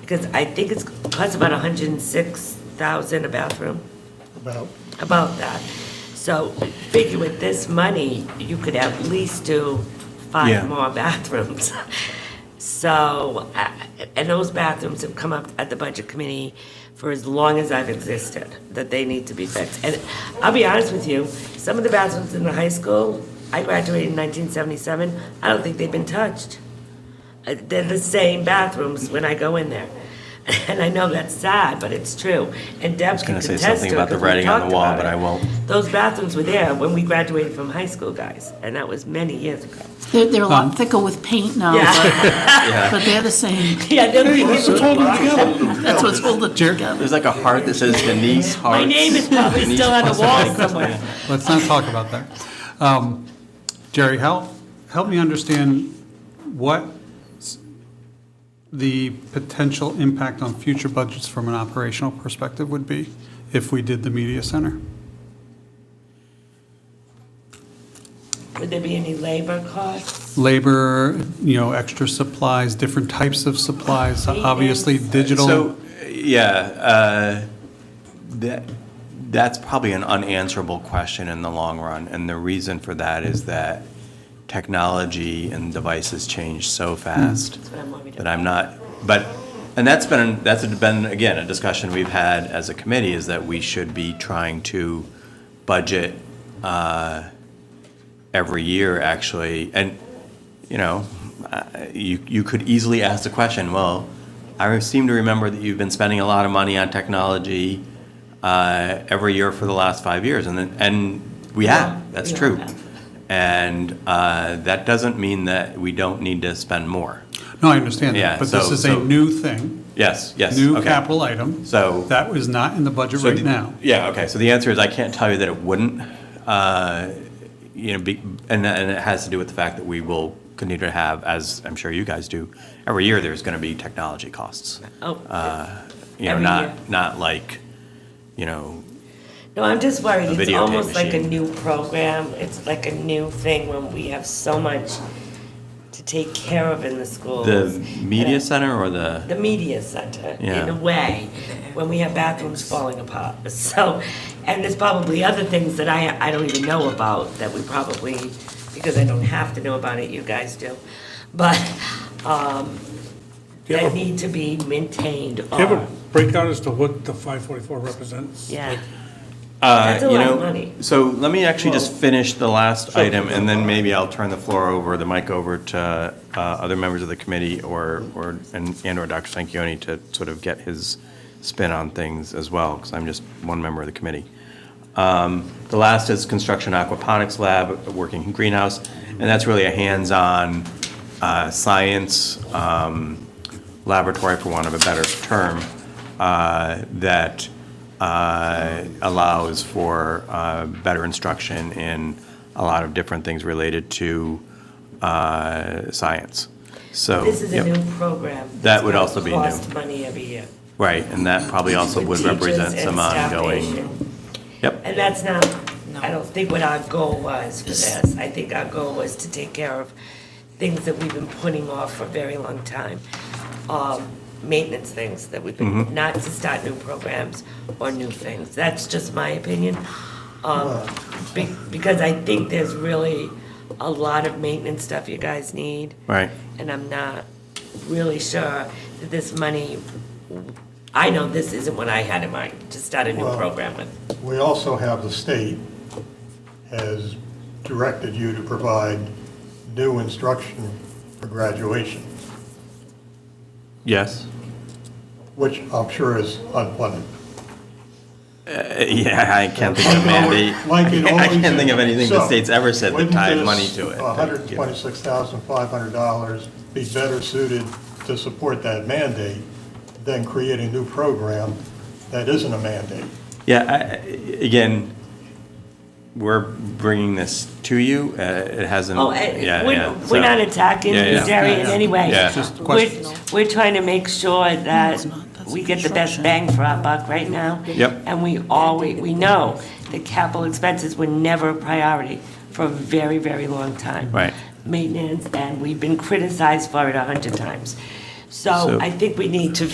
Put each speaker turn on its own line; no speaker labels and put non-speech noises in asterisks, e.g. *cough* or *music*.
because I think it's, costs about hundred and six thousand a bathroom,
about,
about that. So figure with this money, you could at least do
Yeah.
five more *laughs* bathrooms. So, uh, and those bathrooms have come up at the budget committee for as long as I've existed, that they need to be fixed. And I'll be honest with you, some of the bathrooms in the high school, I graduated in nineteen seventy-seven, I don't think they've been touched. Uh, They're the same bathrooms when I go in there. *laughs* And I know that's sad, but it's true. And Deb
was gonna
can
say
contest
something
to it
about the
'cause we
writing on the
talked
wall,
about
but
it.
I won't.
Those bathrooms were there when we graduated from high school, guys, and that was many years ago.
They're, they're a lot thicker with paint now,
*laughs* Yeah,
but- but they're the same.
yeah, they're-
That's what's holding it together.
There's like a heart that says Denise Hart.
my name is probably
Denise
still on the
Hart.
wall somewhere.
Let's not talk about that. Um, Jerry, help, help me understand what s- the potential impact on future budgets from an operational perspective would be if we did the media center.
Would there be any labor costs?
Labor, you know, extra supplies, different types of supplies, obviously digital.
So, yeah, uh, that, that's probably an unanswerable question in the long run. And the reason for that is that technology and devices change so fast
what I'm worried
that I'm not, but, and that's been, that's been, again, a discussion we've had as a committee is that we should be trying to budget uh, every year, actually. And, you know, I- you, you could easily ask the question, well, I seem to remember that you've been spending a lot of money on technology uh, every year for the last five years, and, then- and we have, that's
we
true.
have.
And uh, that doesn't mean that we don't need to spend more.
No, I understand
Yeah,
that, but this
so-
is a
so-
new thing,
Yes, yes.
new
okay.
capital item.
So-
That was not in the budget
So
right
the-
now.
Yeah, okay, so the answer is I can't tell you that it wouldn't, uh, you know, be- and, and it has to do with the fact that we will continue to have, as I'm sure you guys do, every year there's gonna be technology costs. uh,
Oh,
You know,
Every year.
not, not like, you know,
no, I'm just worried. It's
videotape
almost like a
machine.
new program. It's like a new thing when we have so much to take care of in the schools.
the
And I-
media center or the,
the media center in
Yeah.
a way when we have bathrooms falling apart. *laughs* So, and there's probably other things that I, I don't even know about that we probably, because I don't have to know about it, you guys do. But, um,
Yeah.
that need to be maintained
Do you have
or,
a breakout as to what the 544 represents?
Uh, yeah.
uh,
That's a
you
lot of
know,
money.
so let me actually just finish the last
Sure.
item and then maybe I'll turn the floor over, the mic over to, uh, other members of the committee or, or, and, and or Dr. Sanquioni to sort of get his spin on things as well, because I'm just one member of the committee. Um, The last is construction aquaponics lab, a working greenhouse, and that's really a hands-on uh, science um, laboratory, for want of a better term, uh, that uh, allows for uh, better instruction in a lot of different things related to uh, science. So.
This is a
yep.
new program.
That would
that's
also be
gonna
new.
Cost money every year.
Right, and that probably also
for
would
teachers
represent
and
some
staff
ongoing.
issue.
Yep.
And that's not, I don't think what our goal was for this. I think our goal was to take care of things that we've been putting off for a very long time. Um, Maintenance things that we've
Mm-hmm.
been, not to start new programs or new things. That's just my opinion. Um, be- Because I think there's really a lot of maintenance stuff you guys need.
Right.
And I'm not really sure that this money, I know this isn't what I had in mind to start a new
Well-
program with.
we also have the state has directed you to provide new instruction for graduation,
Yes.
which I'm sure is unfunded.
Uh, Yeah, I can't think of
Like it
a mandate.
always- like it
*laughs* I
always
can't think of
is.
anything the
So,
state's ever said that
wouldn't
tied
this
money to it.
$126,500 be better suited to support that mandate than create a new program that isn't a mandate?
Yeah, I, I- again, we're bringing this to you. Uh, It hasn't.
Oh,
yeah,
eh, we're,
yeah, so-
we're not attacking
Yeah, yeah.
Jerry in any way.
Yeah.
Just
We're,
questions.
we're trying to make sure that
it's not. That's
we
a
get the best
construction.
bang for our buck right now.
Yep.
And we always, we know that capital expenses were never a priority for a very, very long time.
Right.
Maintenance, and we've been criticized for it a hundred times. So
So-
I think we need to